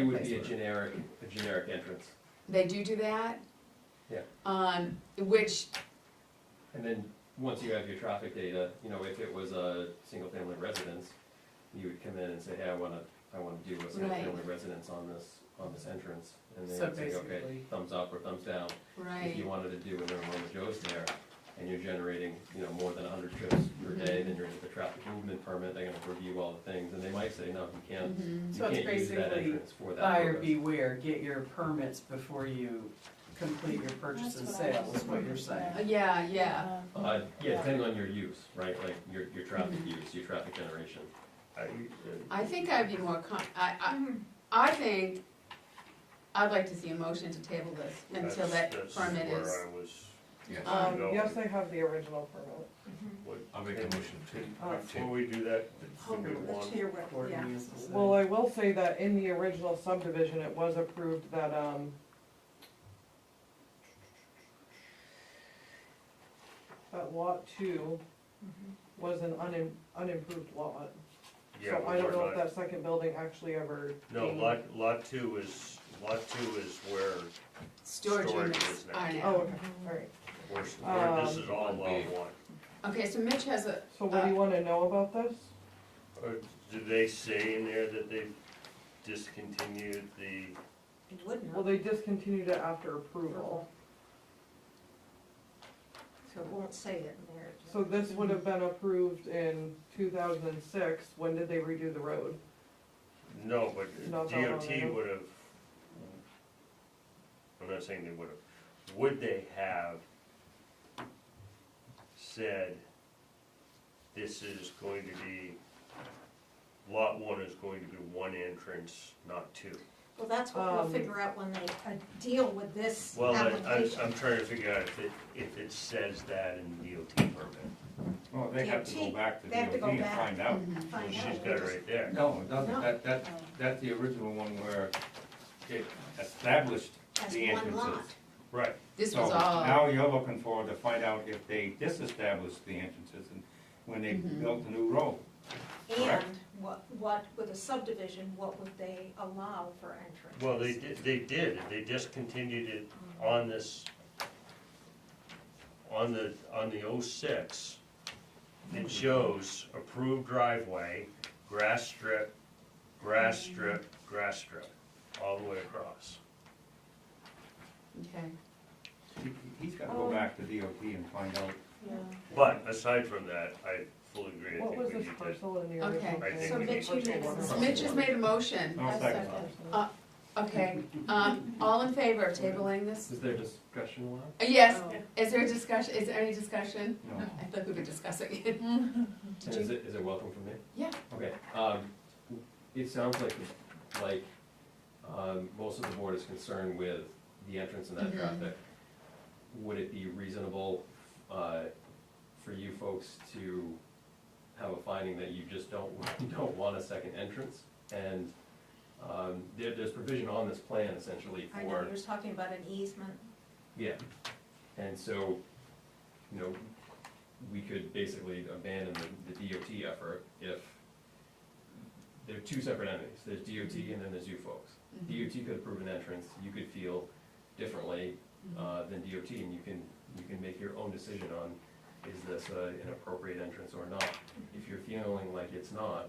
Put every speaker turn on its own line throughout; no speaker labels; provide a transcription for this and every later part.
It would be a generic, a generic entrance,
They do do that?
Yeah.
Um, which,
and then, once you have your traffic data, you know, if it was a single-family residence, you would come in and say, hey, I wanna, I wanna do a single-family residence on this, on this entrance, and they
So
would say, okay,
basically-
thumbs up or thumbs down. If you
right,
wanted to do an intermodal Joe's there, and you're generating, you know, more than hundred trips per
Mm-hmm.
day, then you're into the traffic movement permit, they're gonna review all the things, and they might say, no, you can't,
Mm-hmm.
you
Mm-hmm. So it's
can't use that
basically
entrance for that
Buyer
purpose."
beware, get your permits before you complete your purchase and
That's what I
sale, is what you're
was
saying.
wondering.
Uh, yeah, yeah,
Uh, yeah, depending on your use, right, like your, your traffic
Mm-hmm.
use, your traffic generation.
uh,
I think I'd be more com, I, I, I think, I'd like to see a motion to table this until that
That's-
permit
That's
is.
where I was
Yes.
Um,
going.
Yes, they have the original permit.
What-
I'll make a motion
Uh,
to,
Before
to,
we do that, it's
Oh,
the good one,
Or you used to say.
Well, I will say that in the original subdivision, it was approved that, um, that lot two Mm-hmm. was an unim unimproved lot.
yeah,
So I
we're
don't know
talking
if
about,
that second building actually ever.
no,
came-
lot, lot two is, lot two is where,
Storage
Storage
units
is next.
are
Oh,
now.
okay, all right.
where, where this
Um,
is all lot one.
Okay, so Mitch has a,
So what do you wanna know about this?
Or did they say in there that they discontinued the,
It would
Well,
not,
they discontinued it after approval.
so it won't say it in there.
So this would have been approved in two thousand and six. When did they redo the road?
no, but
Not that long ago.
DOT would have, I'm not saying they would have, would they have said, this is going to be, lot one is going to be one entrance, not two?
Well, that's what we'll
Um,
figure out when they uh, deal with this
Well, I, I'm,
application.
I'm trying to figure out if it, if it says that in the DOT permit.
well, they have to go back to
They have to
DOT
go
and
back.
Oh.
find out.
mm-hmm.
Find out.
She's got it right there.
No, it
No.
doesn't, that, that, that's the original one where it established
As
the
one lot.
entrances.
Right.
this
Oh.
So
was all,
now you're looking for to find out if they disestablished the entrances and when they
Mm-hmm.
built the new road.
And
Correct.
what, what, with a subdivision, what would they allow for entrance?
Well, they did, they did, they discontinued it on this, on the, on the oh six. It shows approved driveway, grass strip, grass strip, grass strip, all the way across.
okay.
He- He's gotta
Oh.
go back to DOT and find out.
But aside from that, I fully agree, I
What
think
was
we
this
need to.
parcel in the
Okay.
original?
I think
thing?
So
we
Mitch, you made a
So
motion.
Mitch has made a motion,
I'll second that.
okay, um, all in favor of tabling this?
Is there discussion allowed?
Uh, Yes,
Oh.
is there a discussion, is there any discussion?
No.
I thought we were discussing it.
And is it, is it welcome for me?
Yeah.
Okay, um, it sounds like, like, um, most of the board is concerned with the entrance and that
Mhm.
Mm-hmm.
traffic. Would it be reasonable, uh, for you folks to have a finding that you just don't, you don't want a second entrance? And, um, there, there's provision on this plan essentially for.
I know, you was talking about an easement.
Yeah, and so, you know, we could basically abandon the, the DOT effort if they're two separate entities, there's DOT and then there's you folks.
Mm-hmm.
DOT could approve an entrance, you could feel differently,
Mm-hmm.
uh, than DOT, and you can, you can make your own decision on, is this uh, an appropriate entrance or not? If you're feeling like it's not,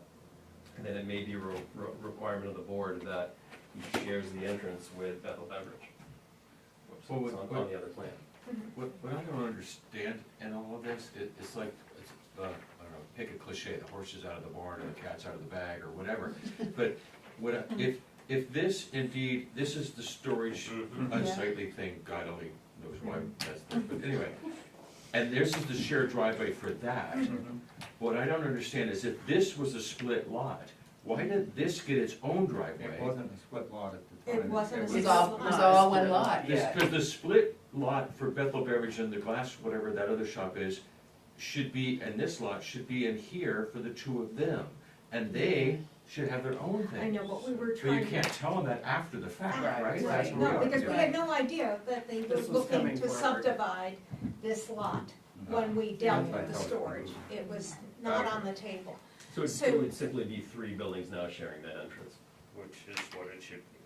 then it may be a re- re- requirement of the board that he shares the entrance with Bethel Beverage. Whoops,
Well,
It's
what-
on, on the other plan.
What, what I don't understand in all of this, it, it's like, it's, uh, I don't know, pick a cliche, the horse is out of the barn or the cat's out of the bag or whatever. But what, I- if, if this indeed, this is the storage
Mm-hmm.
unsightly thing, God only knows why that's, there, but anyway. And this is the shared driveway for that.
Mm-hmm.
What I don't understand is if this was a split lot, why did this get its own driveway?
It wasn't a split lot at the
It
time.
wasn't a
It
was-
was all, it was all one lot,
This, cause the split lot for Bethel Beverage and the glass, whatever that other shop is, should be, and this lot should be in here for the two of them. And they should have their own thing.
I know, but we were
But you
trying. to-
can't tell them that after the fact,
Ah,
right? That's
Right,
what
no,
we are.
because we had no idea that they were
This was
looking
coming
to
forward.
subdivide this lot
Mm-hmm.
when we dealt with the storage. It was not on the table.
So it-
So-
it would simply be three buildings now sharing that entrance.
which is what it should be.